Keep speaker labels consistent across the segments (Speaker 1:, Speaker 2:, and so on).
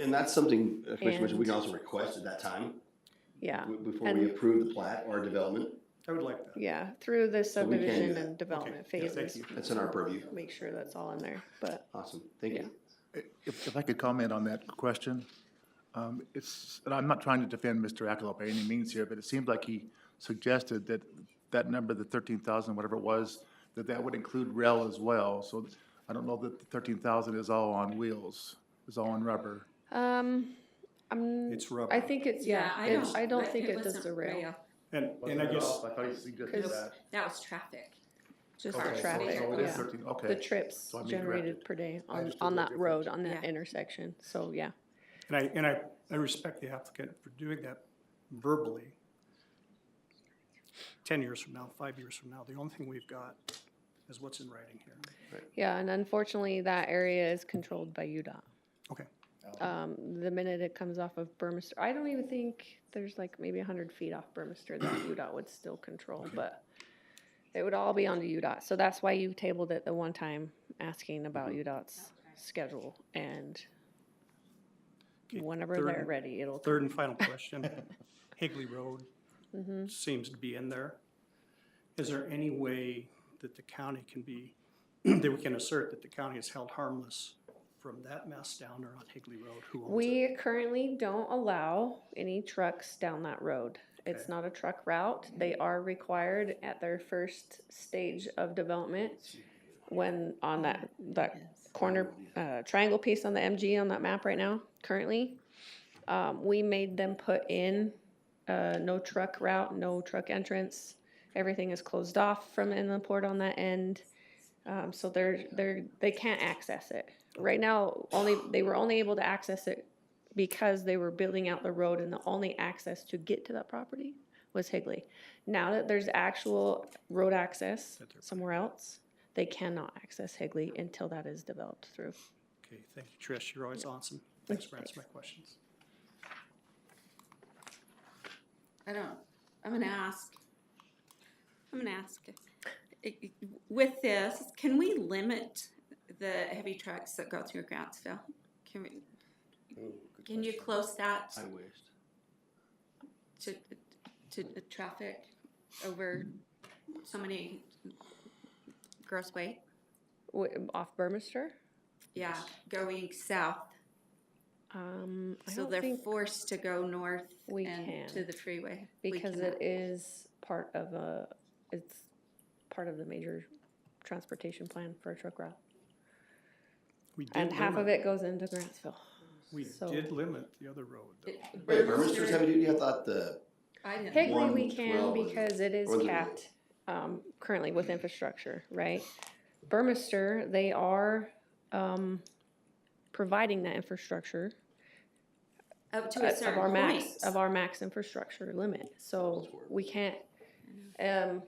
Speaker 1: And that's something, uh, Commissioner Mitchell, we
Speaker 2: And-
Speaker 1: can also request at that time,
Speaker 2: yeah,
Speaker 1: w- before we
Speaker 2: And-
Speaker 1: approve the plat or development.
Speaker 3: I would like that.
Speaker 2: yeah, through the
Speaker 1: So we can do
Speaker 2: subdivision
Speaker 1: that.
Speaker 2: and development
Speaker 3: Okay, yeah, thank
Speaker 2: phases.
Speaker 3: you.
Speaker 1: That's in our purview.
Speaker 2: Make sure that's all in there, but
Speaker 1: Awesome, thank you.
Speaker 4: If, if I could comment on that question, um, it's, and I'm not trying to defend Mr. Akeloff by any means here, but it seemed like he suggested that that number, the thirteen thousand, whatever it was, that that would include rail as well. So I don't know that the thirteen thousand is all on wheels, is all on rubber.
Speaker 2: um, I'm,
Speaker 3: It's rubber.
Speaker 2: I think it's,
Speaker 5: Yeah, I
Speaker 2: it's-
Speaker 5: don't.
Speaker 2: I don't
Speaker 5: but
Speaker 2: think it does
Speaker 5: wasn't
Speaker 2: the rail.
Speaker 3: And, and I guess,
Speaker 4: I thought you suggested
Speaker 2: 'Cause-
Speaker 4: that.
Speaker 5: That was traffic. Just
Speaker 2: Okay,
Speaker 5: our
Speaker 2: so- traffic,
Speaker 4: So it
Speaker 2: yeah.
Speaker 4: is thirteen, okay.
Speaker 2: The trips
Speaker 4: So I mean
Speaker 2: generated
Speaker 4: directed.
Speaker 2: per day on,
Speaker 4: understood
Speaker 2: on
Speaker 4: the
Speaker 2: that road,
Speaker 4: difference.
Speaker 2: on that
Speaker 5: Yeah.
Speaker 2: intersection, so, yeah.
Speaker 3: and I, and I, I respect the applicant for doing that verbally. Ten years from now, five years from now, the only thing we've got is what's in writing here.
Speaker 2: Yeah, and unfortunately, that area is controlled by UDOT.
Speaker 3: Okay.
Speaker 2: Um, the minute it comes off of Burmester, I don't even think there's like maybe a hundred feet off Burmester that UDOT would still control, but it would all be onto UDOT, so that's why you tabled it the one time, asking about
Speaker 3: Mm-hmm.
Speaker 2: UDOT's schedule and
Speaker 3: Okay,
Speaker 2: whenever
Speaker 3: third-
Speaker 2: they're ready, it'll.
Speaker 3: Third and final question. Higley Road
Speaker 2: Mhm.
Speaker 3: seems to be in there. Is there any way that the county can be, that we can assert that the county is held harmless from that mess down there on Higley Road? Who owns it?
Speaker 2: We currently don't allow any trucks down that road. It's
Speaker 3: Okay. Mm-hmm.
Speaker 2: not a truck route. They are required at their first stage of development when on that, that corner, uh, triangle piece on the MG on that map right now, currently. Um, we made them put in, uh, no truck route, no truck entrance. Everything is closed off from inland port on that end. Um, so they're, they're, they can't access it. Right now, only, they were only able to access it because they were building out the road and the only access to get to that property was Higley. Now that there's actual road access somewhere else, they cannot access Higley until that is developed through.
Speaker 3: Okay, thank you, Trish. You're always awesome. Thanks for answering my questions.
Speaker 5: I don't, I'm gonna ask, I'm gonna ask, i- i- with this, can we limit the heavy trucks that go through Grantsville? Can we, can you close that
Speaker 1: Oh, I wished.
Speaker 5: to, to the traffic over so many gross weight?
Speaker 2: W- Off Burmester,
Speaker 5: Yeah, going south,
Speaker 2: um, I
Speaker 5: so
Speaker 2: don't
Speaker 5: they're
Speaker 2: think
Speaker 5: forced to go north
Speaker 2: we
Speaker 5: and to
Speaker 2: can,
Speaker 5: the freeway. We
Speaker 2: because
Speaker 5: cannot.
Speaker 2: it is part of a, it's part of the major transportation plan for a truck route.
Speaker 3: We did
Speaker 2: And half of
Speaker 3: limit-
Speaker 2: it goes into Grantsville.
Speaker 3: We
Speaker 2: so-
Speaker 3: did limit the other road, though.
Speaker 5: It-
Speaker 1: Wait, Burmister's heavy duty, I thought the,
Speaker 5: I didn't.
Speaker 2: Higley,
Speaker 1: One
Speaker 2: we can
Speaker 1: twelve is-
Speaker 2: because it is
Speaker 1: or the-
Speaker 2: capped, um, currently with infrastructure, right? Burmester, they are, um, providing that infrastructure
Speaker 5: Up to
Speaker 2: uh,
Speaker 5: a
Speaker 2: of our
Speaker 5: certain point.
Speaker 2: max, of our max infrastructure limit, so we can't, um, and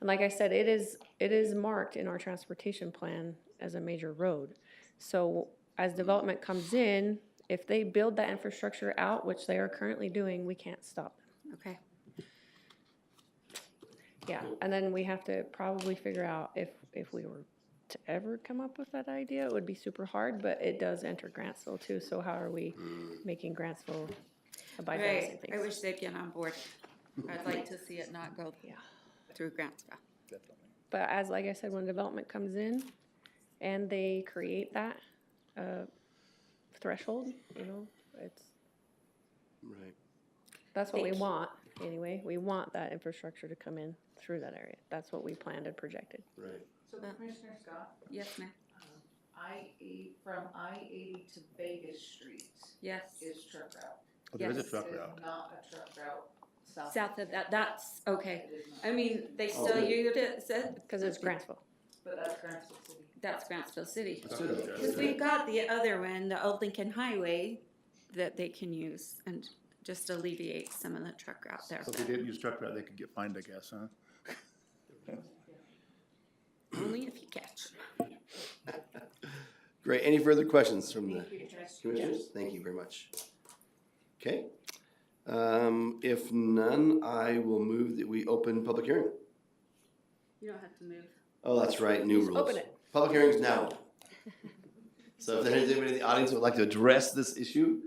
Speaker 2: like I said, it is, it is marked in our transportation plan as a major road. So as development comes in, if they build that infrastructure out, which they are currently doing, we can't stop them.
Speaker 5: Okay,
Speaker 2: Yeah, and then we have to probably figure out if, if we were to ever come up with that idea, it would be super hard, but it does enter Grantsville too, so how are we making Grantsville abide by the same
Speaker 5: right, I
Speaker 2: things?
Speaker 5: wish they'd get on board. I'd like to see it not go
Speaker 2: Yeah.
Speaker 5: through Grantsville.
Speaker 2: But as, like I said, when development comes in and they create that, uh, threshold, you know, it's,
Speaker 1: right.
Speaker 2: that's what we
Speaker 5: Thank you.
Speaker 2: want, anyway. We want that infrastructure to come in through that area. That's what we planned and projected.
Speaker 1: Right.
Speaker 6: So
Speaker 5: Uh,
Speaker 6: Commissioner Scott,
Speaker 5: Yes, ma'am,
Speaker 6: I eight, from I eighty to Vegas Street
Speaker 5: yes.
Speaker 6: is truck route.
Speaker 4: There is a
Speaker 5: Yes.
Speaker 4: truck
Speaker 6: It is
Speaker 4: route.
Speaker 6: Not a truck route south.
Speaker 5: South of that, that's, okay.
Speaker 6: It is not.
Speaker 5: I mean, they
Speaker 1: Oh,
Speaker 5: still
Speaker 1: good.
Speaker 5: use it, so-
Speaker 2: Cause it's Grantsville.
Speaker 6: But that's Grantsville City.
Speaker 5: That's Grantsville City.
Speaker 1: Let's do that.
Speaker 5: Because we've got the other one, the Old Lincoln Highway, that they can use and just alleviate some of the truck route there.
Speaker 4: So if they didn't use truck route, they could get fined, I guess, huh?
Speaker 5: Only if you catch.
Speaker 1: Great, any further questions from the
Speaker 6: Thank you, Trish.
Speaker 1: commissioners? Thank you very much. Okay, um, if none, I will move that we open public hearing.
Speaker 5: You don't have to move.
Speaker 1: Oh, that's right, new
Speaker 2: Just
Speaker 1: rules.
Speaker 2: open it.
Speaker 1: Public hearings now. So if there's anybody in the audience who would like to address this issue,